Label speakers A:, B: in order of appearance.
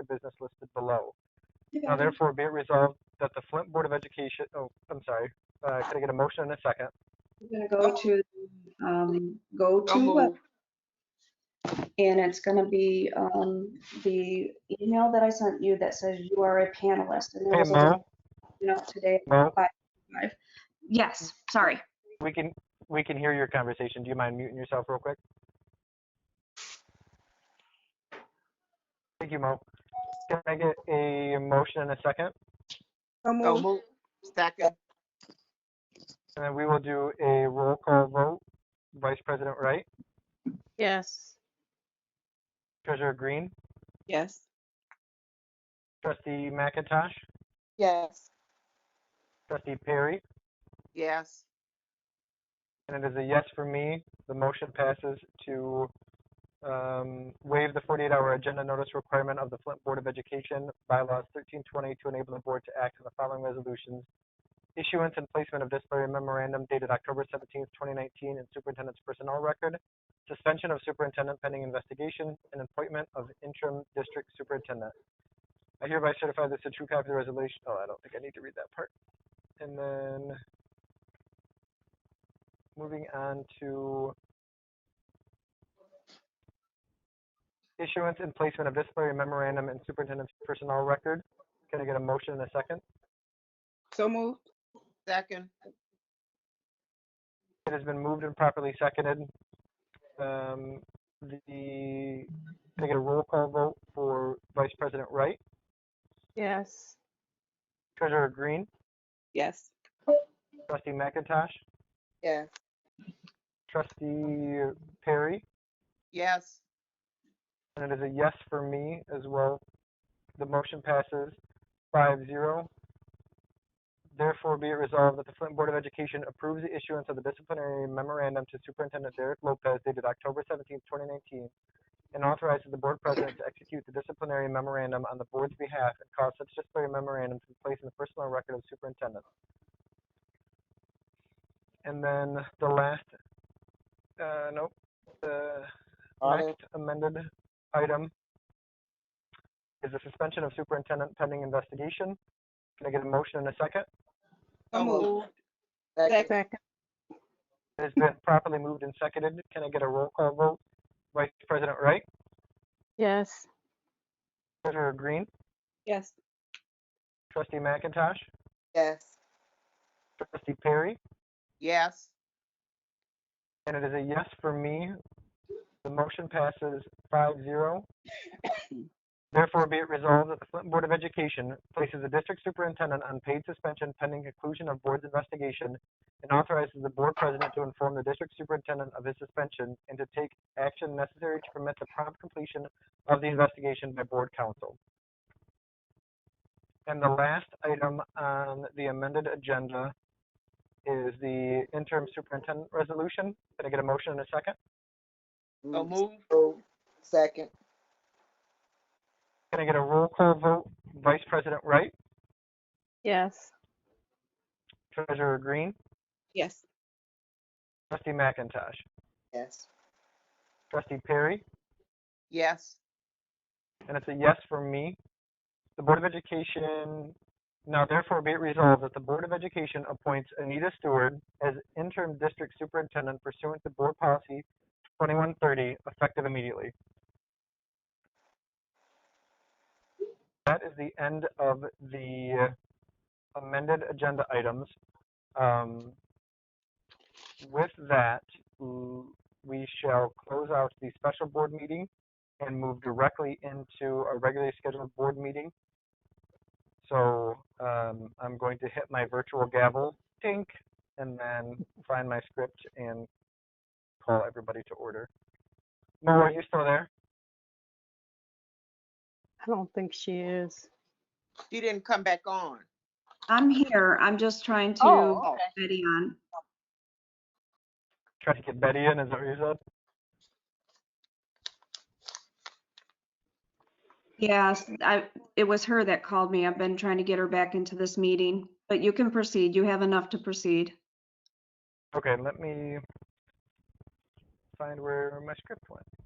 A: Mm-hmm.
B: Now therefore be it resolved that the Flint Board of Education, oh, I'm sorry, uh, can I get a motion and a second?
A: We're gonna go to, um, go
C: Oh. I'll
A: to, web-
C: move.
A: and it's gonna be, um, the email that I sent you that says you are a panelist. And there
B: Hey,
A: was a
B: Mo,
A: note today.
B: Mo,
A: Yes, sorry.
B: we can, we can hear your conversation. Do you mind muting yourself real quick? Thank you, Mo. Can I get a motion and a second?
D: So
C: I'll
D: moved.
C: move. Second.
B: And then we will do a roll call vote. Vice President Wright,
D: Yes.
B: Treasurer Green,
C: Yes.
B: Trustee McIntosh,
C: Yes.
B: Trustee Perry,
C: Yes.
B: and it is a yes for me. The motion passes to um, waive the 48-hour agenda notice requirement of the Flint Board of Education bylaws 1320 to enable the board to act on the following resolutions. Issuance and placement of disciplinary memorandum dated October 17th, 2019 in superintendent's personnel record, suspension of superintendent pending investigation, and appointment of interim district superintendent. I hereby certify this a true copy of the resolution. Oh, I don't think I need to read that part. And then moving on to issuance and placement of disciplinary memorandum and superintendent's personnel record. Can I get a motion in a second?
C: So moved. Second.
B: It has been moved and properly seconded. Um, the, can I get a roll call vote for Vice President Wright,
D: Yes.
B: Treasurer Green,
C: Yes.
B: Trustee McIntosh,
C: Yes.
B: Trustee Perry,
C: Yes.
B: And it is a yes for me as well. The motion passes 5-0. Therefore, be it resolved that the Flint Board of Education approves the issuance of the disciplinary memorandum to Superintendent Derek Lopez dated October 17, 2019, and authorizes the Board President to execute the disciplinary memorandum on the Board's behalf and cause such disciplinary memorandum to be placed in the personal record of Superintendent. And then the last, uh, nope, the
C: Audit.
B: next amended item is the suspension of superintendent pending investigation. Can I get a motion in a second?
C: So moved. Second.
D: Second.
B: It has been properly moved and seconded. Can I get a roll call vote? Vice President Wright,
D: Yes.
B: Treasurer Green,
C: Yes.
B: Trustee McIntosh,
C: Yes.
B: Trustee Perry,
C: Yes.
B: and it is a yes for me. The motion passes 5-0. Therefore, be it resolved that the Flint Board of Education places the district superintendent on paid suspension pending conclusion of board's investigation and authorizes the board president to inform the district superintendent of his suspension and to take action necessary to permit the prompt completion of the investigation by board counsel. And the last item on the amended agenda is the interim superintendent resolution. Can I get a motion in a second?
C: So moved.
E: Second,
B: Can I get a roll call vote? Vice President Wright,
D: Yes.
B: Treasurer Green,
C: Yes.
B: Trustee McIntosh,
E: yes.
B: Trustee Perry,
C: Yes.
B: and it's a yes for me. The Board of Education, now therefore be it resolved that the Board of Education appoints Anita Stewart as interim district superintendent pursuant to board policy 2130, effective immediately. That is the end of the amended agenda items. Um, With that, mm, we shall close out the special board meeting and move directly into a regularly scheduled board meeting. So um, I'm going to hit my virtual gavel, tink, and then find my script and call everybody to order. Mo, are you still there?
D: I don't think she is.
C: She didn't come back on.
A: I'm here. I'm just trying to
C: Oh, okay.
A: get Betty on.
B: Try to get Betty in, is that what you said?
A: Yes, I, it was her that called me. I've been trying to get her back into this meeting, but you can proceed. You have enough to proceed.
B: Okay, let me find where my script went.